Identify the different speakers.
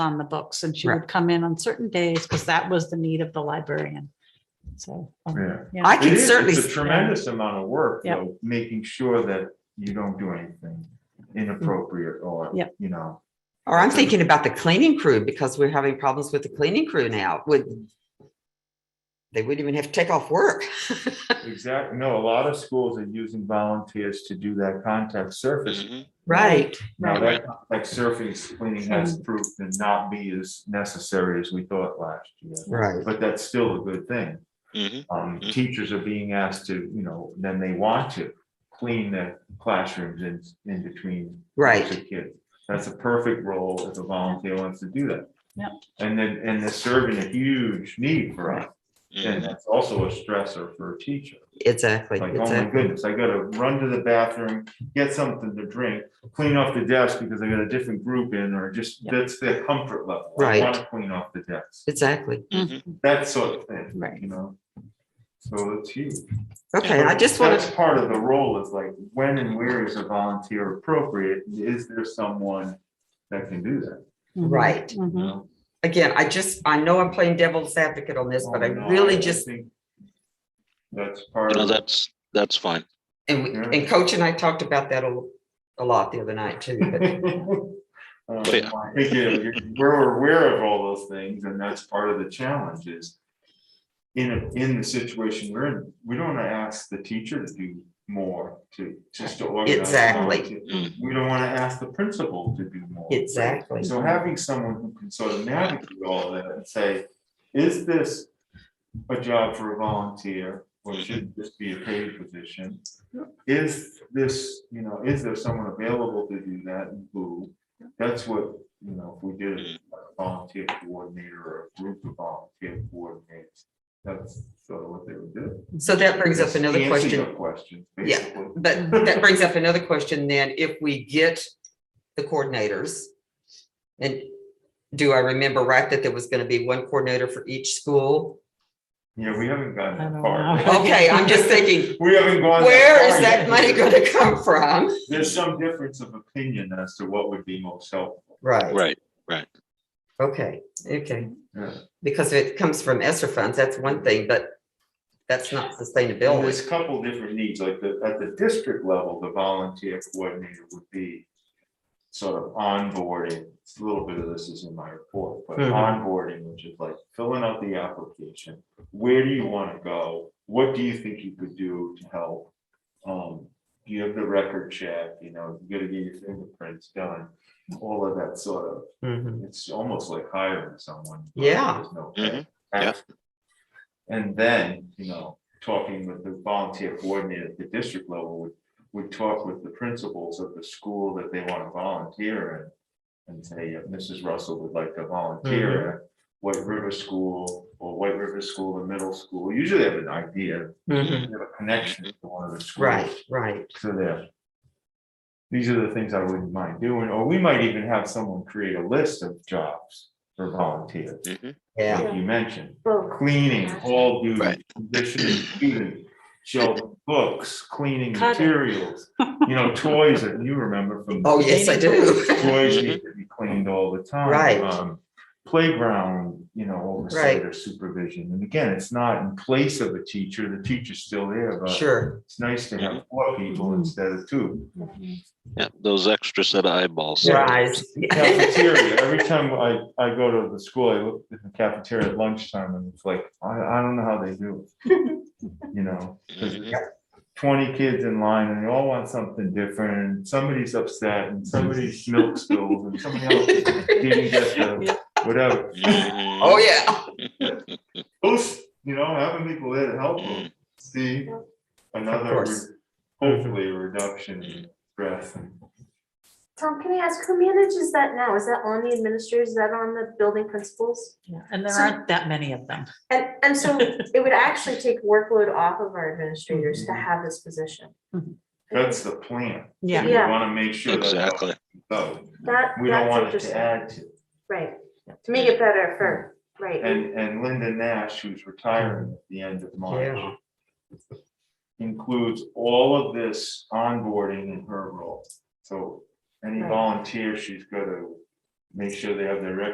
Speaker 1: on the books and she
Speaker 2: Right.
Speaker 1: would come in on certain days because that was the need of the librarian. So. um,
Speaker 3: Yeah.
Speaker 1: yeah.
Speaker 2: I
Speaker 3: It
Speaker 2: can
Speaker 3: is,
Speaker 2: certainly,
Speaker 3: it's a tremendous amount of work,
Speaker 1: Yep.
Speaker 3: though, making sure that you don't do anything inappropriate or,
Speaker 1: Yep.
Speaker 3: you know.
Speaker 2: or I'm thinking about the cleaning crew because we're having problems with the cleaning crew now would. They wouldn't even have to take off work.
Speaker 3: Exactly, no, a lot of schools are using volunteers to do that contact surface.
Speaker 4: Mhm.
Speaker 2: Right.
Speaker 3: Now,
Speaker 1: Right.
Speaker 3: that contact surface cleaning has proved to not be as necessary as we thought last year.
Speaker 2: Right.
Speaker 3: But that's still a good thing.
Speaker 4: Mhm.
Speaker 3: Um,
Speaker 4: Mhm.
Speaker 3: teachers are being asked to, you know, then they want to clean the classrooms in, in between.
Speaker 2: Right.
Speaker 3: groups of Kids. That's a perfect role if a volunteer wants to do that.
Speaker 1: Yep.
Speaker 3: And then, and they're serving a huge need for us. And
Speaker 4: Mhm.
Speaker 3: that's also a stressor for a teacher.
Speaker 2: Exactly.
Speaker 3: Like, oh my
Speaker 2: exactly.
Speaker 3: goodness, I gotta run to the bathroom, get something to drink, clean off the desk because I got a different group in or just,
Speaker 1: Yep.
Speaker 3: that's their comfort level.
Speaker 2: Right.
Speaker 3: I want to clean off the desk,
Speaker 2: Exactly.
Speaker 4: Mhm.
Speaker 3: that sort of thing.
Speaker 1: Right.
Speaker 3: You know? So it's huge.
Speaker 2: Okay, I just want
Speaker 3: That's
Speaker 2: to,
Speaker 3: part of the role is like, when and where is a volunteer appropriate? Is there someone that can do that?
Speaker 1: Mhm.
Speaker 2: right.
Speaker 3: you
Speaker 1: Mhm.
Speaker 3: know?
Speaker 2: Again, I just, I know I'm playing devil's advocate on this, but I
Speaker 3: Oh, no,
Speaker 2: really just,
Speaker 3: think That's part
Speaker 4: No,
Speaker 3: of,
Speaker 4: that's, that's fine.
Speaker 2: and, we-
Speaker 3: Yeah.
Speaker 2: and Coach and I talked about that a, a lot the other night too. but-
Speaker 3: Um,
Speaker 4: Yeah.
Speaker 3: I think you- you- We're aware of all those things and that's part of the challenge is in, a- in the situation we're in, we don't want to ask the teacher to do more to, just to organize.
Speaker 2: Exactly.
Speaker 3: volunteer. We don't want to ask the principal to do more.
Speaker 2: Exactly.
Speaker 3: So having someone who can sort of navigate all that and say, is this a job for a volunteer? Or should this be a paid position? Is this, you know, is there someone available to do that and who? That's what, you know, if we did a volunteer coordinator or a group of volunteer coordinators, that's sort of what they would do.
Speaker 2: So that brings up
Speaker 3: Just
Speaker 2: another
Speaker 3: answer
Speaker 2: question.
Speaker 3: your Questions,
Speaker 2: Yeah.
Speaker 3: basically.
Speaker 2: But that brings up another question then, if we get the coordinators. And do I remember right that there was gonna be one coordinator for each school?
Speaker 3: Yeah, we haven't gotten
Speaker 1: I don't
Speaker 3: that far.
Speaker 1: know.
Speaker 2: Okay, I'm just thinking,
Speaker 3: We haven't gone.
Speaker 2: where
Speaker 3: far
Speaker 2: is that
Speaker 3: yet.
Speaker 2: money gonna come from?
Speaker 3: There's some difference of opinion as to what would be most helpful.
Speaker 2: Right,
Speaker 4: Right.
Speaker 2: okay, okay,
Speaker 3: Yeah.
Speaker 2: because if it comes from ESSER funds, that's one thing, but that's not
Speaker 3: And There's
Speaker 2: sustainability.
Speaker 3: a couple different needs, like the, at the district level, the volunteer coordinator would be sort of onboarding, It's a little bit of this is in my report, but
Speaker 2: Mhm.
Speaker 3: onboarding, which is like filling out the application. Where do you want to go? What do you think you could do to help? Um, do you have the record check, you know, you gotta get your fingerprints done, all of that sort of
Speaker 2: Mhm.
Speaker 3: It's almost like hiring someone. but
Speaker 2: Yeah.
Speaker 3: there's no
Speaker 4: Mhm.
Speaker 3: action. And then, you know, talking with the volunteer coordinator at the district level would, would talk with the principals of the school that they want to volunteer in. And say, "Yeah, Mrs. Russell would like to
Speaker 2: Mm-hmm.
Speaker 3: volunteer at White River School or White River School, the middle school. Usually they have an idea, they
Speaker 2: Mhm.
Speaker 3: have a connection to one of the schools.
Speaker 2: Right, right,
Speaker 3: So there. These are the things I wouldn't mind doing, or we might even have someone create a list of jobs for volunteers,
Speaker 4: Mhm.
Speaker 2: yeah,
Speaker 3: like you mentioned.
Speaker 1: Mm-hmm.
Speaker 5: Well,
Speaker 3: Cleaning, hall duty,
Speaker 4: Right.
Speaker 3: conditioning, student, shelving books, cleaning
Speaker 1: Cutting.
Speaker 3: materials. You know, toys that you remember from.
Speaker 2: oh, yes, I do,
Speaker 3: Toys need to be cleaned all the time.
Speaker 2: Right.
Speaker 3: Um, Playground, you know, oversight or supervision. And again, it's not in place of a teacher. The teacher's still there, but
Speaker 2: sure, Mm-hmm.
Speaker 3: it's nice to have four people
Speaker 1: Mhm.
Speaker 3: instead of two.
Speaker 1: Mm-hmm.
Speaker 4: Yeah, those extra set of eyeballs.
Speaker 2: rise.
Speaker 3: Cafeteria, every time I, I go to the school, I look at the cafeteria at lunchtime and it's like, I, I don't know how they do it. You know, because
Speaker 4: Mhm.
Speaker 3: twenty kids in line and they all want something different, and somebody's upset and somebody's milk spilled and somebody else didn't get the, whatever.
Speaker 4: Mhm.
Speaker 2: Oh, yeah,
Speaker 3: Those, you know, having people there to help them see another,
Speaker 2: course.
Speaker 3: re- hopefully a reduction in stress and
Speaker 5: Tom, can I ask, who manages that now? Is that on the administrators? Is that on the building principals?
Speaker 1: Yeah, And there
Speaker 5: So-
Speaker 1: aren't that many of them.
Speaker 5: And, and so it would actually take workload off of our administrators to have this position.
Speaker 1: Mhm.
Speaker 3: That's the plan.
Speaker 1: Yeah.
Speaker 3: We
Speaker 5: Yeah.
Speaker 3: want to make sure. that's how
Speaker 4: Exactly.
Speaker 3: it goes.
Speaker 5: That,
Speaker 3: We don't
Speaker 5: that's
Speaker 3: want it to
Speaker 5: interesting.
Speaker 3: add to.
Speaker 5: Right, to make it better for, right,
Speaker 3: And, and Linda Nash, who's retiring at the end of
Speaker 2: yeah,
Speaker 3: March, includes all of this onboarding in her role. So any
Speaker 5: Right.
Speaker 3: volunteer, she's got to make sure they have their record